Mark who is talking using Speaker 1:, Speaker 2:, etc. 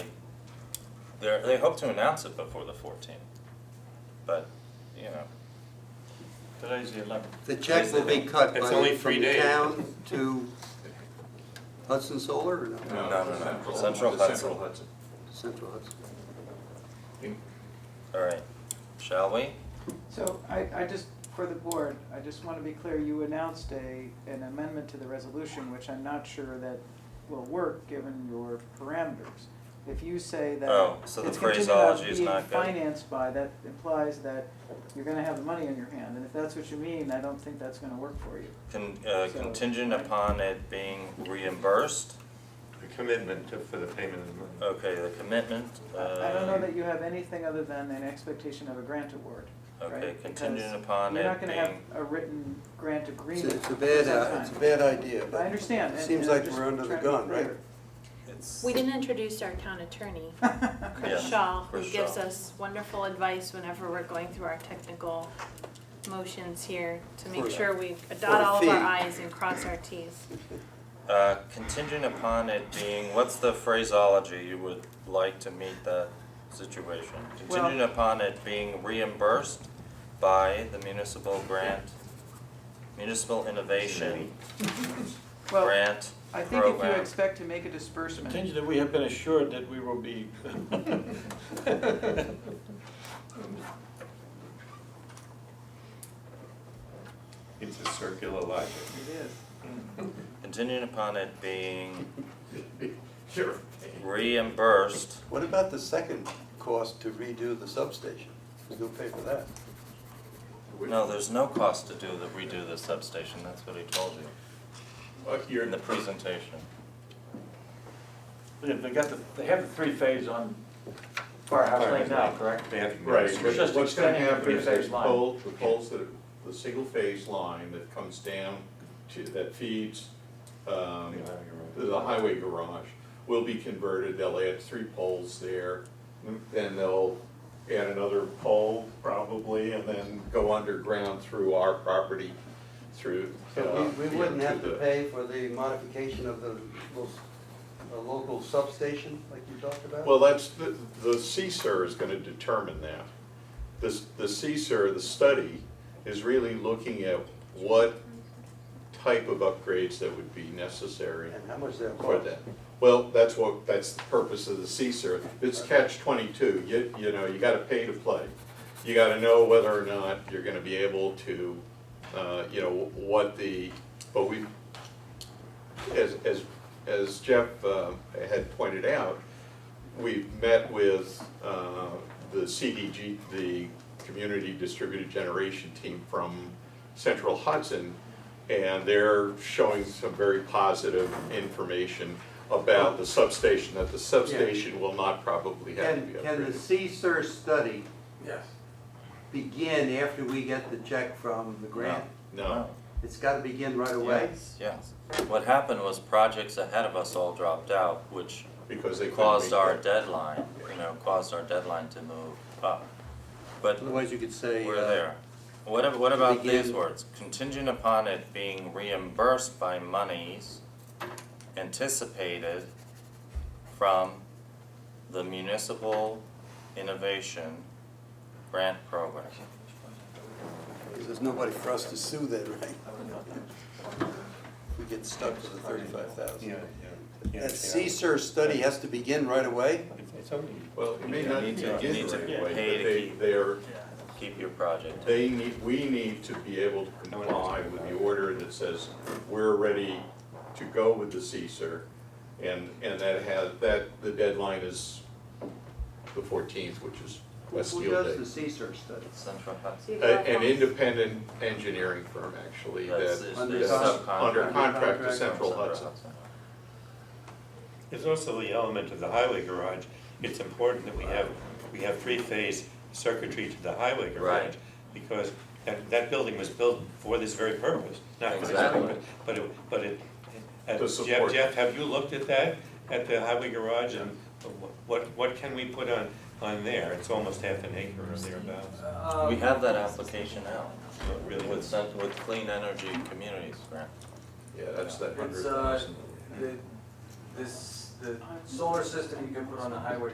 Speaker 1: They're, they hope to announce it before the fourteenth, but, you know.
Speaker 2: Today's the eleventh.
Speaker 3: The check will be cut
Speaker 4: It's
Speaker 3: by,
Speaker 4: only
Speaker 3: from
Speaker 4: three
Speaker 3: the
Speaker 4: days.
Speaker 3: town to Hudson Solar or no?
Speaker 1: No, no, no.
Speaker 5: Central-
Speaker 1: Central
Speaker 5: the
Speaker 1: Hudson.
Speaker 5: Central Hudson.
Speaker 3: Central Hudson.
Speaker 1: All right, shall we?
Speaker 6: So I, I just, for the board, I just want to be clear, you announced a, an amendment to the resolution, which I'm not sure that will work, given your parameters. If you say that
Speaker 1: Oh, so the
Speaker 6: it's contingent on
Speaker 1: phraseology is
Speaker 6: being
Speaker 1: not good.
Speaker 6: financed by, that implies that you're gonna have the money in your hand, and if that's what you mean, I don't think that's gonna work for you.
Speaker 1: Con, uh,
Speaker 6: So-
Speaker 1: contingent upon it being reimbursed,
Speaker 4: The commitment to, for the payment of the money.
Speaker 1: okay, the commitment,
Speaker 6: I I don't know
Speaker 1: um,
Speaker 6: that you have anything other than an expectation of a grant award, right?
Speaker 1: Okay, contingent
Speaker 6: Because
Speaker 1: upon
Speaker 6: You're
Speaker 1: it
Speaker 6: not gonna have
Speaker 1: being-
Speaker 6: a written grant
Speaker 3: It's
Speaker 6: agreement.
Speaker 3: a- it's a
Speaker 6: at
Speaker 3: bad,
Speaker 6: that
Speaker 3: uh,
Speaker 6: time.
Speaker 3: it's a bad idea. but
Speaker 6: I understand.
Speaker 3: It
Speaker 6: and-
Speaker 3: seems
Speaker 6: and I'm
Speaker 3: like
Speaker 6: just
Speaker 3: we're under the
Speaker 6: trying to be
Speaker 3: gun, right?
Speaker 6: clear.
Speaker 1: it's.
Speaker 7: We didn't introduce our town attorney, Chris
Speaker 1: Yeah,
Speaker 7: Shaw, who
Speaker 1: Chris
Speaker 7: gives
Speaker 1: Shaw.
Speaker 7: us wonderful advice whenever we're going through our technical motions here to
Speaker 3: For
Speaker 7: make
Speaker 3: the-
Speaker 7: sure we
Speaker 3: for
Speaker 7: dot
Speaker 3: the
Speaker 7: all of our
Speaker 3: fee.
Speaker 7: i's and cross our t's.
Speaker 1: Uh, contingent upon it being, what's the phraseology you would like to meet that situation?
Speaker 6: Well-
Speaker 1: Contingent upon it being reimbursed by the municipal grant, municipal innovation
Speaker 6: Well,
Speaker 1: grant
Speaker 6: I think if you
Speaker 1: program.
Speaker 6: expect to make a disbursement,
Speaker 2: Contingent that Uh, we have been assured that we will be.
Speaker 4: It's a circular logic.
Speaker 6: it is.
Speaker 1: Contingent upon it being
Speaker 5: Sure.
Speaker 1: reimbursed,
Speaker 3: What about the second cost to redo the substation? Who's gonna pay for that?
Speaker 1: no, there's no cost to do the redo the substation, that's what he told you
Speaker 5: Look, you're,
Speaker 1: in the presentation.
Speaker 2: They got the, they have the three phase on Firehouse Lane now, correct?
Speaker 4: They have to.
Speaker 5: right,
Speaker 2: We're just
Speaker 5: what's gonna
Speaker 2: extending the
Speaker 5: happen is
Speaker 2: three-phase
Speaker 5: there's
Speaker 2: line.
Speaker 5: pole, the poles that, are- the single phase line that comes down to, that feeds, um, the highway garage will be converted, they'll add three poles there, then they'll add another pole probably, and then go underground through our property, through. uh,
Speaker 3: So we, we wouldn't have to
Speaker 5: the-
Speaker 3: pay for the modification of the, lo- the local substation like you talked about?
Speaker 5: Well, that's, the the CSER is gonna determine that. This, the CSER, the study, is really looking at what type of upgrades that would be necessary
Speaker 3: And how much that
Speaker 5: for
Speaker 3: cost?
Speaker 5: that. Well, that's what, that's the purpose of the CSER. It's catch twenty-two, you, you know, you gotta pay to play. You gotta know whether or not you're gonna be able to, uh, you know, what the, but we, as, as, as Jeff, uh, had pointed out, we've met with, uh, the CDG, the Community Distributed Generation Team from Central Hudson, and they're showing some very positive information about the substation, that the substation will not probably have to
Speaker 3: Can,
Speaker 5: be upgraded.
Speaker 3: can the CSER study? Begin after we get the check from the grant?
Speaker 5: No,
Speaker 3: It's gotta begin right away?
Speaker 1: Yes, what happened was projects ahead of us all dropped out, which
Speaker 5: because they couldn't make
Speaker 1: caused our
Speaker 5: that.
Speaker 1: deadline, you know, caused our deadline to move up. But
Speaker 3: Otherwise you could say.
Speaker 1: we're
Speaker 3: uh,
Speaker 1: there. What, ab- what about these
Speaker 3: begin-
Speaker 1: words? Contingent upon it being reimbursed by monies anticipated from the municipal innovation grant program.
Speaker 3: Because there's nobody for us to sue then, right? We get stuck with the thirty-five thousand. That CSER study has to begin right away?
Speaker 4: It's only.
Speaker 5: Well, it may
Speaker 1: You
Speaker 5: not
Speaker 1: need to-
Speaker 5: begin
Speaker 1: need to
Speaker 5: right away,
Speaker 1: pay
Speaker 5: but
Speaker 1: to
Speaker 5: they,
Speaker 1: keep-
Speaker 5: they're,
Speaker 1: Keep your project.
Speaker 5: they need, we need to be able to comply with the order that says we're ready to go with the CSER. And, and that has, that, the deadline is the fourteenth, which is
Speaker 3: Who
Speaker 5: Westfield Day.
Speaker 3: does the CSER study?
Speaker 1: Central Hudson.
Speaker 5: A- An independent engineering firm, actually,
Speaker 1: That's,
Speaker 5: that,
Speaker 1: it's
Speaker 3: Under
Speaker 1: the
Speaker 3: con-
Speaker 1: subcontract
Speaker 5: under
Speaker 1: from
Speaker 5: contract to
Speaker 3: Contract.
Speaker 5: Central Hudson.
Speaker 4: There's also the element of the highway garage. It's important that we have, we have three-phase circuitry to the highway garage.
Speaker 1: Right.
Speaker 4: Because that, that building was built for this very purpose, not for this
Speaker 1: Exactly.
Speaker 4: purpose, but it, but it. uh,
Speaker 5: To
Speaker 4: Jeff,
Speaker 5: support.
Speaker 4: Jeff, have you looked at that, at the highway garage and what, what can we put on, on there? It's almost half an acre or thereabouts.
Speaker 1: We have that application out
Speaker 4: Not really.
Speaker 1: with, cent- with Clean Energy Communities Grant.
Speaker 5: Yeah, that's that hundred
Speaker 8: It's, uh,
Speaker 5: thousand.
Speaker 8: the, this, the solar system you can put on the highway